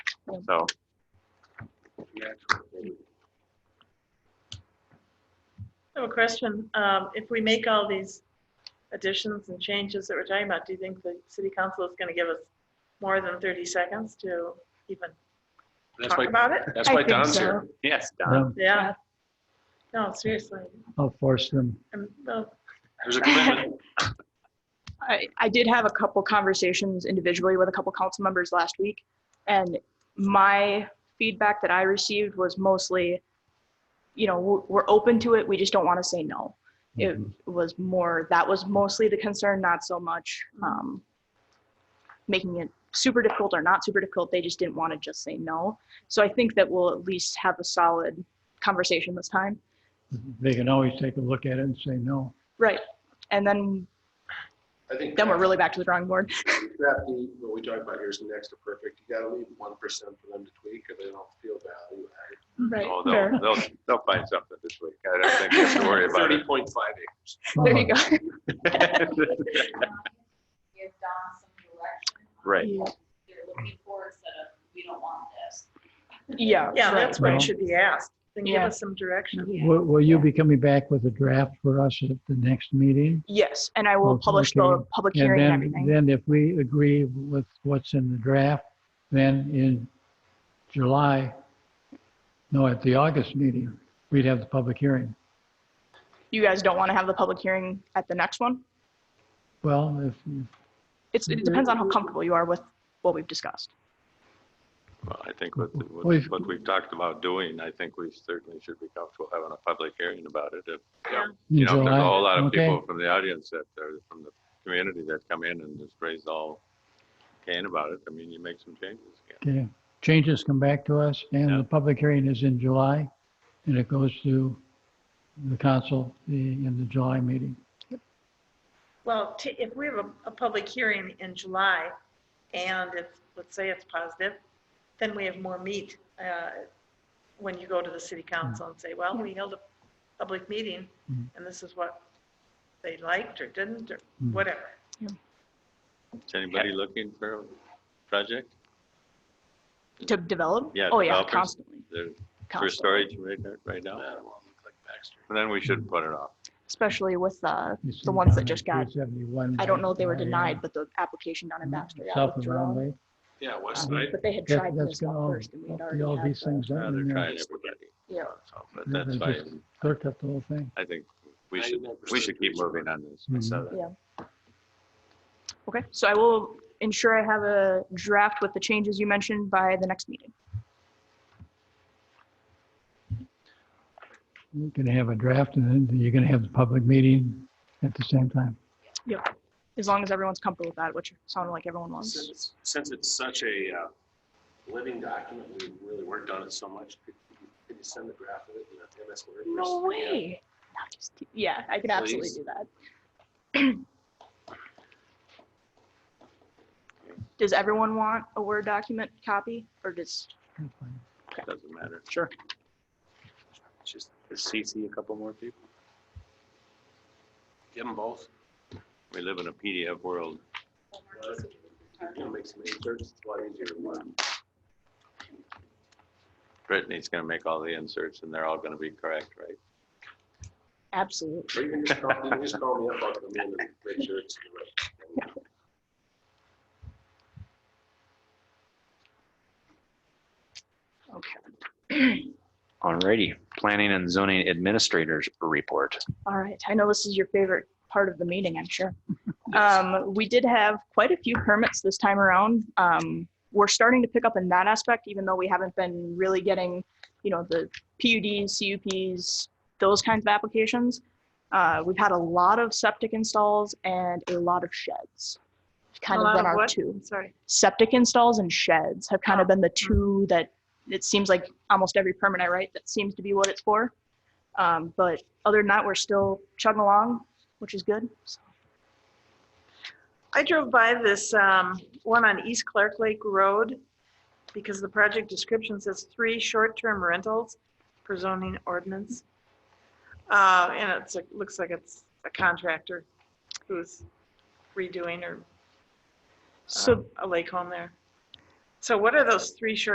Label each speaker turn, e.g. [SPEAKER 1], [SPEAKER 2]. [SPEAKER 1] so.
[SPEAKER 2] I have a question. Um, If we make all these additions and changes that we're talking about, do you think the city council is going to give us more than 30 seconds to even
[SPEAKER 3] That's
[SPEAKER 2] talk
[SPEAKER 3] why,
[SPEAKER 2] about it?
[SPEAKER 3] that's
[SPEAKER 4] I
[SPEAKER 3] why
[SPEAKER 4] think
[SPEAKER 3] Don's
[SPEAKER 4] so.
[SPEAKER 3] here.
[SPEAKER 1] Yes, Don.
[SPEAKER 5] No,
[SPEAKER 2] Yeah. No, seriously.
[SPEAKER 5] I'll force them.
[SPEAKER 2] Um, well,
[SPEAKER 3] There's a commitment.
[SPEAKER 4] I, I did have a couple conversations individually with a couple council members last week, and my feedback that I received was mostly, you know, we're, we're open to it, we just don't want to say no. It was more, that was mostly the concern, not so much um, making it super difficult or not super difficult, they just didn't want to just say no. So I think that we'll at least have a solid conversation this time.
[SPEAKER 5] They can always take a look at it and say no.
[SPEAKER 4] Right. And then,
[SPEAKER 6] I think
[SPEAKER 4] then we're really back to the drawing board.
[SPEAKER 6] that the, what we talk about here is next to perfect. You gotta leave one percent for them to tweak or they don't feel value added.
[SPEAKER 4] Right.
[SPEAKER 1] Oh, they'll, they'll, they'll find something this week. I don't think you have to worry about
[SPEAKER 6] Thirty
[SPEAKER 1] it.
[SPEAKER 6] point five acres.
[SPEAKER 4] There
[SPEAKER 5] Uh-huh.
[SPEAKER 4] you go.
[SPEAKER 7] give Don some direction. on
[SPEAKER 1] Right.
[SPEAKER 7] what They're looking for instead of, we don't want this.
[SPEAKER 4] Yeah.
[SPEAKER 2] Yeah,
[SPEAKER 4] right.
[SPEAKER 2] that's what
[SPEAKER 5] Well-
[SPEAKER 2] it should be asked. Then give
[SPEAKER 4] Yeah.
[SPEAKER 2] us some direction.
[SPEAKER 5] Will, will you be coming back with a draft for us at the next meeting?
[SPEAKER 4] Yes, and I will
[SPEAKER 5] Okay,
[SPEAKER 4] publish the
[SPEAKER 5] okay.
[SPEAKER 4] public
[SPEAKER 5] And
[SPEAKER 4] hearing and
[SPEAKER 5] then,
[SPEAKER 4] everything.
[SPEAKER 5] then if we agree with what's in the draft, then in July, no, at the August meeting, we'd have the public hearing.
[SPEAKER 4] You guys don't want to have the public hearing at the next one?
[SPEAKER 5] Well, if, if
[SPEAKER 4] It's, it depends on how
[SPEAKER 5] Mm-hmm.
[SPEAKER 4] comfortable you are with what we've discussed.
[SPEAKER 1] Well, I think what, what
[SPEAKER 5] We've-
[SPEAKER 1] what we've talked about doing, I think we certainly should be comfortable having a public hearing about it. If,
[SPEAKER 5] in
[SPEAKER 1] You know, if there's
[SPEAKER 5] July,
[SPEAKER 1] a whole lot of
[SPEAKER 5] okay?
[SPEAKER 1] people from the audience that are from the community that come in and just raise all can about it. I mean, you make some changes. yeah.
[SPEAKER 5] Okay, changes come back to us, and
[SPEAKER 1] Yeah.
[SPEAKER 5] the public hearing is in July, and it goes to the council the- in the July meeting.
[SPEAKER 2] Well, t- if we have a, a public hearing in July and if, let's say it's positive, then we have more meat uh, when you go to the city council and say, well, we held a public meeting
[SPEAKER 5] Mm.
[SPEAKER 2] and this is what they liked or didn't or
[SPEAKER 5] Mm.
[SPEAKER 2] whatever.
[SPEAKER 1] Is anybody looking for a project?
[SPEAKER 4] To develop?
[SPEAKER 1] Yeah,
[SPEAKER 4] Oh, yeah,
[SPEAKER 1] developers.
[SPEAKER 4] constantly.
[SPEAKER 1] There's for
[SPEAKER 4] constantly.
[SPEAKER 1] storage right now- right
[SPEAKER 3] Uh,
[SPEAKER 6] That
[SPEAKER 1] now?
[SPEAKER 6] one looks like Baxter.
[SPEAKER 1] And then we should put it off.
[SPEAKER 4] Especially with, uh,
[SPEAKER 5] You see
[SPEAKER 4] ones that
[SPEAKER 5] down
[SPEAKER 4] just
[SPEAKER 5] on
[SPEAKER 4] got-
[SPEAKER 5] 371
[SPEAKER 4] I don't know if they were
[SPEAKER 5] by, uh,
[SPEAKER 4] denied, but the application down in
[SPEAKER 5] Mm-hmm.
[SPEAKER 4] Baxter got
[SPEAKER 5] Hmm. South of
[SPEAKER 4] withdrawn.
[SPEAKER 5] Roundway.
[SPEAKER 6] Yeah, West
[SPEAKER 5] Uh-huh.
[SPEAKER 6] Side.
[SPEAKER 4] But they had
[SPEAKER 5] That-
[SPEAKER 4] tried
[SPEAKER 5] That's
[SPEAKER 4] this
[SPEAKER 5] got
[SPEAKER 4] one
[SPEAKER 5] all,
[SPEAKER 4] first and we had already
[SPEAKER 5] all
[SPEAKER 4] had
[SPEAKER 5] these
[SPEAKER 4] the-
[SPEAKER 5] things
[SPEAKER 1] Uh,
[SPEAKER 5] out
[SPEAKER 1] They're
[SPEAKER 5] in there.
[SPEAKER 1] trying everybody.
[SPEAKER 4] Yeah.
[SPEAKER 1] So, But that's
[SPEAKER 5] They just
[SPEAKER 1] fine.
[SPEAKER 5] Clerked up the whole thing.
[SPEAKER 1] I think we should, we should keep moving on this. uh, I saw that.
[SPEAKER 4] Okay, so I will ensure I have a draft with the changes you mentioned by the next meeting.
[SPEAKER 5] You're going to have a draft, and then you're going to have the public meeting at the same time.
[SPEAKER 4] As long as everyone's comfortable with that, which sounded like everyone
[SPEAKER 6] Since
[SPEAKER 4] was.
[SPEAKER 6] it's- Since it's such a uh, living document, we really worked on it so much. Could you could you send the graph of it in a MS Word? or
[SPEAKER 4] No
[SPEAKER 6] something?
[SPEAKER 4] way. Not just- Yeah, I could absolutely
[SPEAKER 6] Please.
[SPEAKER 4] do that. Does everyone want a Word document copy or just,
[SPEAKER 5] That's fine.
[SPEAKER 1] Doesn't matter.
[SPEAKER 4] sure,
[SPEAKER 6] Just CC a couple more people. Give them both.
[SPEAKER 1] We live in a PDF world.
[SPEAKER 6] You know, make some inserts, it's a lot easier to work.
[SPEAKER 1] Brittany's gonna make all the inserts and they're all gonna be correct, right?
[SPEAKER 4] absolutely.
[SPEAKER 6] Or you can just call, you can just call me up on the end and make sure it's the right.
[SPEAKER 4] Okay.
[SPEAKER 8] Alrighty, planning and zoning administrators report.
[SPEAKER 4] All right. I know this is your favorite part of the meeting, I'm sure. Um, we did have quite a few permits this time around. Um, we're starting to pick up in that aspect, even though we haven't been really getting, you know, the PUDs, CUPs, those kinds of applications. Uh, we've had a lot of septic installs and a lot of sheds. Kind
[SPEAKER 2] A
[SPEAKER 4] of
[SPEAKER 2] lot of
[SPEAKER 4] been our
[SPEAKER 2] what?
[SPEAKER 4] two.
[SPEAKER 2] Sorry.
[SPEAKER 4] Septic installs and sheds have kind of been the two that it seems like almost every permit I write, that seems to be what it's for. Um, but other than that, we're still chugging along, which is good. So,
[SPEAKER 2] I drove by this um, one on East Clark Lake Road because the project description says three short-term rentals per zoning ordinance. Uh, And it's, it looks like it's a contractor who's redoing or
[SPEAKER 4] so
[SPEAKER 2] um, a lake home there. So what are those three short